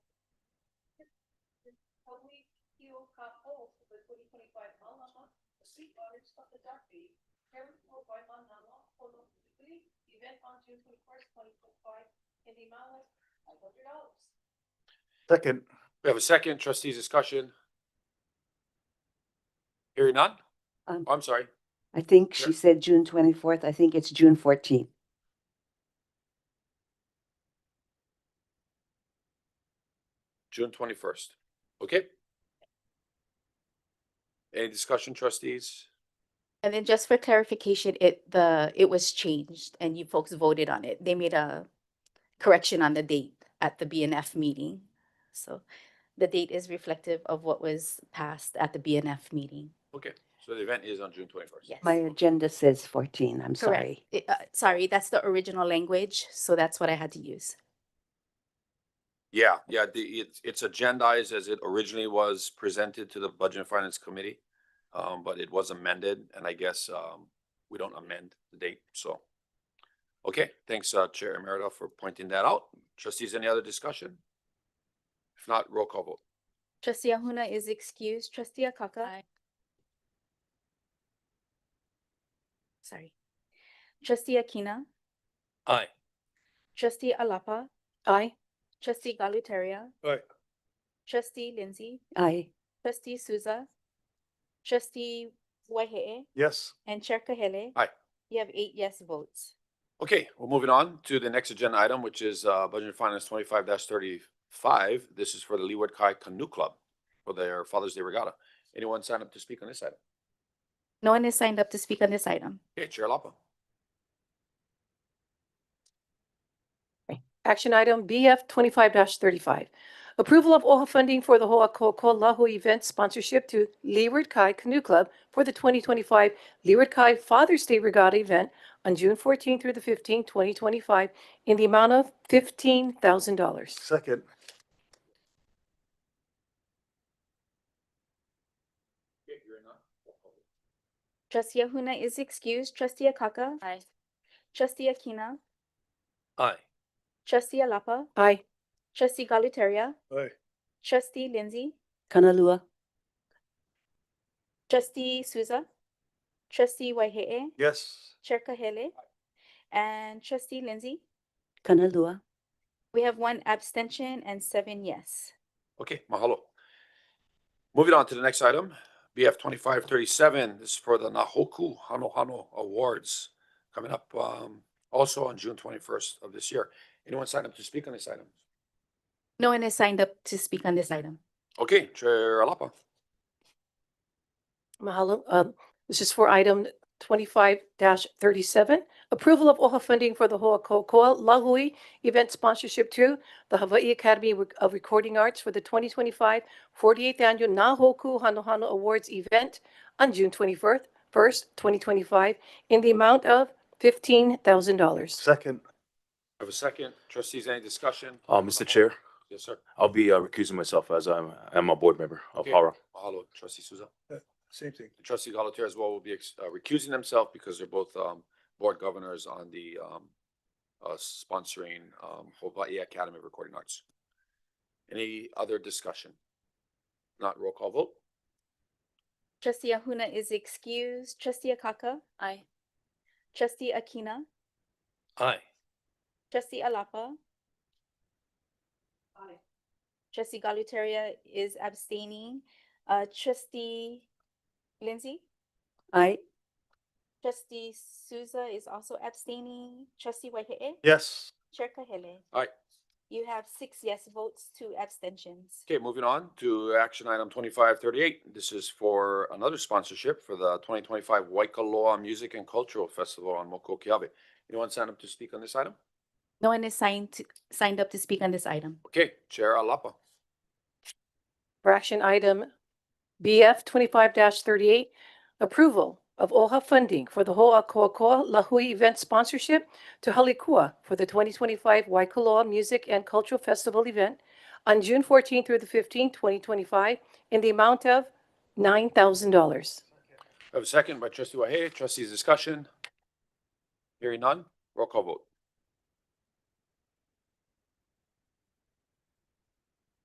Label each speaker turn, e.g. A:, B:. A: When we heal cut holes for the twenty twenty five Malama, the sea waters of the Ducky, carried forward by Manama for the weekly event on June twenty first, twenty twenty five, in the amount of five hundred dollars.
B: Second.
C: We have a second, trustees discussion. Hearing none? Oh,
D: Um,
C: I'm sorry,
D: I think
C: Sure.
D: she said June twenty-fourth. I think it's June fourteenth.
C: June twenty-first. Okay? Any discussion, trustees?
E: And then just for clarification, it, the, it was changed and you folks voted on it. They made a correction on the date at the BNF meeting. So the date is reflective of what was passed at the BNF meeting.
C: Okay, so the event is on June twenty-first.
E: Yes.
D: My agenda says fourteen. I'm sorry.
E: It- uh, Sorry, that's the original language, so that's what I had to use.
C: Yeah, yeah, the, it's, it's agendized as it originally was presented to the Budget and Finance Committee. Um, but it was amended and I guess, um, we don't amend the date, so. Okay, thanks, uh, Chair Emerita for pointing that out. Trustees, any other discussion? If not, roll call vote.
E: Trustee Ahuna is excused. Trustee Akaka? Sorry. Trustee Akina?
C: Aye.
E: Trustee Alapa? Aye. Trustee Galutaria?
B: Aye.
E: Trustee Lindsay?
D: I,
E: Trustee Souza? Trustee Wahehe?
B: Yes.
E: And Chair Kahele?
C: Aye.
E: You have eight yes votes.
C: Okay, we're moving on to the next agenda item, which is uh, Budget and Finance twenty-five thirty-five. This is for the Leeward Kai Canoe Club for their Father's Day Regatta. Anyone sign up to speak on this item?
E: No one has signed up to speak on this item.
C: Okay, Chair Lapa.
A: Action item BF twenty-five thirty-five. Approval of OHA funding for the Ho'akoko'olahu event sponsorship to Leeward Kai Canoe Club for the twenty twenty-five Leeward Kai Father's Day Regatta event on June fourteenth through the fifteenth, twenty twenty-five, in the amount of fifteen thousand dollars.
B: Second.
E: Trustee Ahuna is excused. Trustee Akaka? Aye. Trustee Akina?
C: Aye.
E: Trustee Alapa?
A: Aye.
E: Trustee Galutaria?
B: Aye.
E: Trustee Lindsay?
D: Kanalua,
E: Trustee Souza? Trustee Wahehe?
B: Yes.
E: Chair Kahele? And Trustee Lindsay?
D: Kanalua,
E: We have one abstention and seven yes.
C: Okay, mahalo. Moving on to the next item, BF twenty-five thirty-seven This is for the Nahoku Hano Hano Awards coming up um also on June twenty-first of this year. Anyone sign up to speak on this item?
E: No one has signed up to speak on this item.
C: Okay, Chair Lapa.
A: Mahalo. Um, This is for item twenty-five thirty-seven. Approval of OHA funding for the Ho'akokoa Lahui event sponsorship to the Hawaii Academy of Recording Arts for the 2025 48th annual Nahoku Hanohano Awards event on June twenty-first, first, twenty twenty-five, in the amount of fifteen thousand dollars.
B: Second.
C: Have a second. Trustees, any discussion?
F: Uh, Mr. Chair,
C: Yes, sir.
F: I'll be uh, recusing myself as I'm, I'm a board member of
C: Okay.
F: Hara.
C: Mahalo, trustee Souza.
B: Same thing.
C: Trustee Galutaire as well will be ex- uh, recusing themselves because they're both um board governors on the um uh sponsoring um Hawaii Academy of Recording Arts. Any other discussion? Not roll call vote?
E: Trustee Ahuna is excused. Trustee Akaka? Aye. Trustee Akina?
C: Aye.
E: Trustee Alapa?
A: Aye.
E: Trustee Galutaria is abstaining. Uh, trustee Lindsay?
D: I,
E: Trustee Souza is also abstaining. Trustee Wahehe?
B: Yes.
E: Chair Kahele?
C: Aye.
E: You have six yes votes, two abstentions.
C: Okay, moving on to action item twenty-five thirty-eight. This is for another sponsorship for the twenty twenty-five Waikoloa Music and Cultural Festival on Mokokiawe. Anyone sign up to speak on this item?
E: No one is signed, to- signed up to speak on this item.
C: Okay, Chair Alapa.
A: For action item BF twenty-five thirty-eight, approval of OHA funding for the Ho'akoakoa Lahui event sponsorship to Halikua for the twenty twenty-five Waikoloa Music and Cultural Festival event on June fourteenth through the fifteenth, twenty twenty-five, in the amount of nine thousand dollars.
C: I have a second by trustee Wahehe. Trustees, discussion? Hearing none, roll call vote.